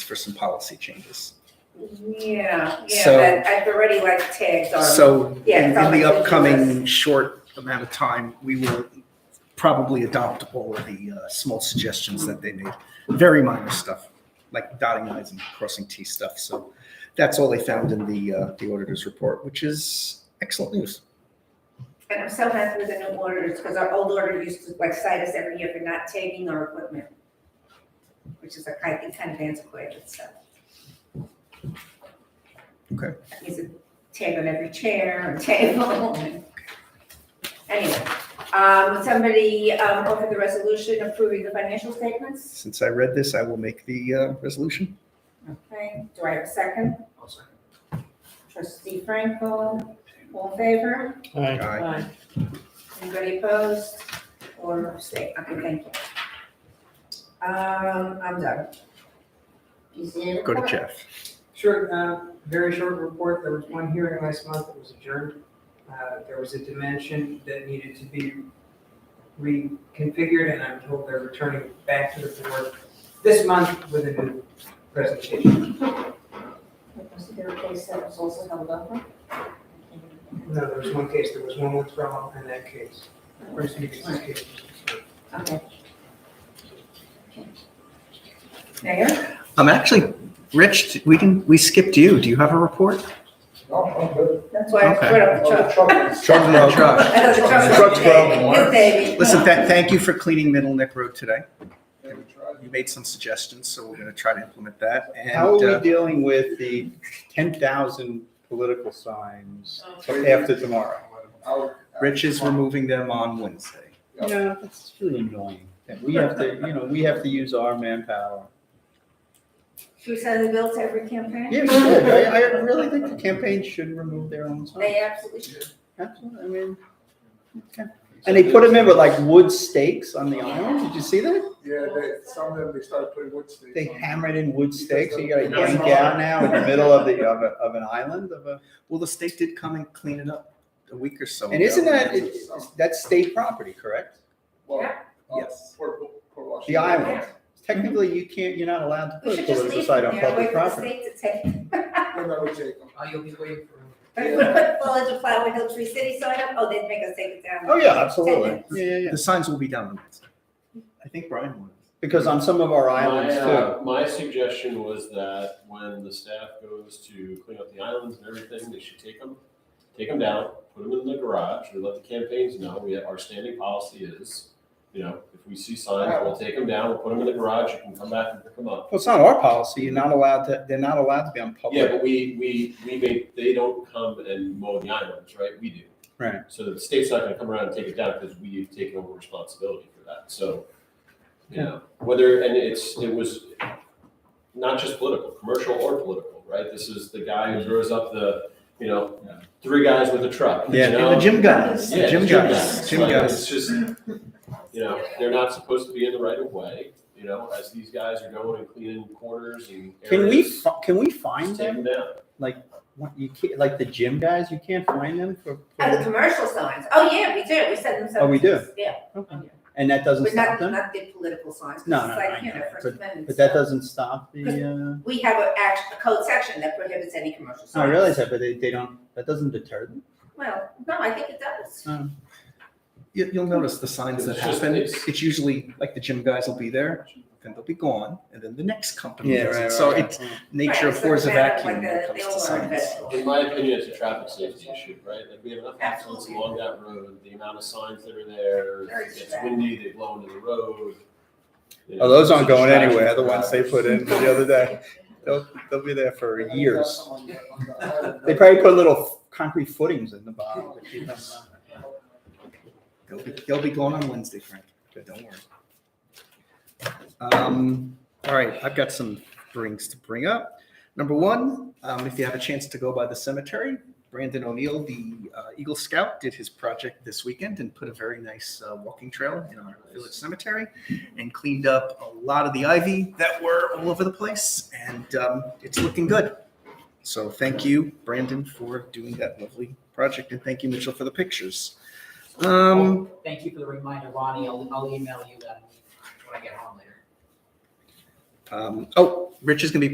for some policy changes. Yeah, yeah, So- but I've already like tagged on. So Um, Yeah, in in something the to do upcoming short amount of time, we will probably adopt all of the uh, small suggestions that they made. Very minor stuff, like dotting i's and crossing t stuff. So that's all they found in the uh, the auditor's report, which is excellent news. And I'm so happy with the new orders, because our old order used to like cite us every year for not tagging our equipment, which is like, I think, kind of antiquated, so. Okay. That means a tag on every chair and table. Anyway, um, somebody, um, offered the resolution approving the financial statements, Since I read this, I will make the uh, resolution. okay, do I have a second? Trustee Franco, all in favor? Aye. Aye. Aye. Anybody opposed or abstain? Okay, thank you. Um, I'm done. Is there any Go to comment? Jeff. Short, uh, very short report, there was one hearing last month that was adjourned. Uh, There was a dimension that needed to be reconfigured, and I'm told they're returning back to the board this month with a new presentation. Was there a case that was also held up? No, there was one case, there was one withdrawal in that case. First meeting's case. Okay. Mayor? I'm actually, Rich, we can, we skipped you. Do you have a report? No, I'm good. That's why I Okay. put up the Oh, truck. the truck is- Truck no truck. That's the truck. Truck's broken, what? Good baby. Listen, tha- thank you for cleaning Middle Neck Road today. Yeah, we tried. You made some suggestions, so we're gonna try to implement that. And How are uh, we dealing with the ten thousand political signs Oh. after tomorrow? I'll- Rich is removing them on Wednesday. Yeah, that's really annoying. And we have to, you know, we have to use our manpower. Should we send the bill to every campaign? Yeah, we should. I, I really think the campaign should remove their own signs. They absolutely should. Absolutely, I mean, okay. And they put them in with like wood stakes on the island. Did you see that? Yeah, they, some of them, they started putting wood stakes They on. hammered in wood stakes. You gotta yank out now in the middle of the, of a, of an island of a. Well, the state did come and clean it up a week or so. And isn't ago. that, it- it's- that's state property, correct? Well, Yeah. uh, Yes. Port, Port Washington. The island. Technically, you can't, you're not allowed to We put a should just political leave site them on there, wait for public the property. state to take. And that would take them. Uh, Oh, you'll be waiting for him. If we put Village of Flower Hill Tree City sign up, oh, they'd make us take it down. Oh, yeah, absolutely. Ten Yeah, yeah, yeah. The signs will be down on Wednesday. I think Brian wanted. Because on some of our islands My, too. uh, My suggestion was that when the staff goes to clean up the islands and everything, they should take them, take them down, put them in the garage, we let the campaigns know, we have, our standing policy is, you know, if we see signs, we'll take them down, we'll put them in the garage, you can come back and pick them up. Well, it's not our policy. You're not allowed to, they're not allowed to be on Yeah, public. but we, we, we make, they don't come and mow the islands, right? We do. Right. So the state's not gonna come around and take it down because we've taken over responsibility for that, so, you know, whether, and it's, it was not just political, commercial or political, right? This is the guy who throws up the, you know, three guys with a truck, you Yeah, know? The gym guys, Yeah, the gym guys, gym Like, guys. It's just, you know, they're not supposed to be in the right of way, you know, as these guys are going and cleaning corners and areas. Can we, fi- can we find just take them? them down. What, You can't, like the gym guys, you can't find them for, Oh, the for- commercial signs, oh, yeah, we do, we send them some. Oh, we do? Yeah, and that doesn't but stop not, them? not the political signs, No, because it's no, no, like, I you know, know, First Amendment. But that stuff. doesn't stop the, We have a act, a code section that prohibits any commercial uh, signs. I realize that, but they, they don't, that doesn't deter them. Well, no, I think it does. Oh. You, you'll notice the signs that It's just- happen, it's- it's usually like the gym guys will be there, then they'll be gone, and then the next company Yeah, does right, it. So right, it's right. nature Right, it's affords a like that, vacuum when like it the- comes the to old signs. one, In my opinion, it's a traffic safety issue, right? Like, we have enough accidents Absolutely. along that road, the amount of signs that are Very there, if it gets distracting. windy, they blow into the road. you know, Oh, those aren't it's a going distraction anywhere, the for ones they drivers. put in the other day. They'll, they'll be there for And I years. got someone on the uh, island. They probably put little concrete footings in the bottom to keep them. uh, They'll be, they'll be gone on Wednesday, Frank. Don't worry. Um, all right, I've got some brings to bring up. Number one, um, if you have a chance to go by the cemetery, Brandon O'Neill, the uh, Eagle Scout, did his project this weekend and put a very nice uh, walking trail in our village cemetery and cleaned up a lot of the ivy that were all over the place. And um, it's looking good. So thank you, Brandon, for doing that lovely project. And thank you, Mitchell, for the pictures. Um, Thank you for the reminder, Ronnie. I'll, I'll email you that when I get home later. Um, oh, Rich is going to be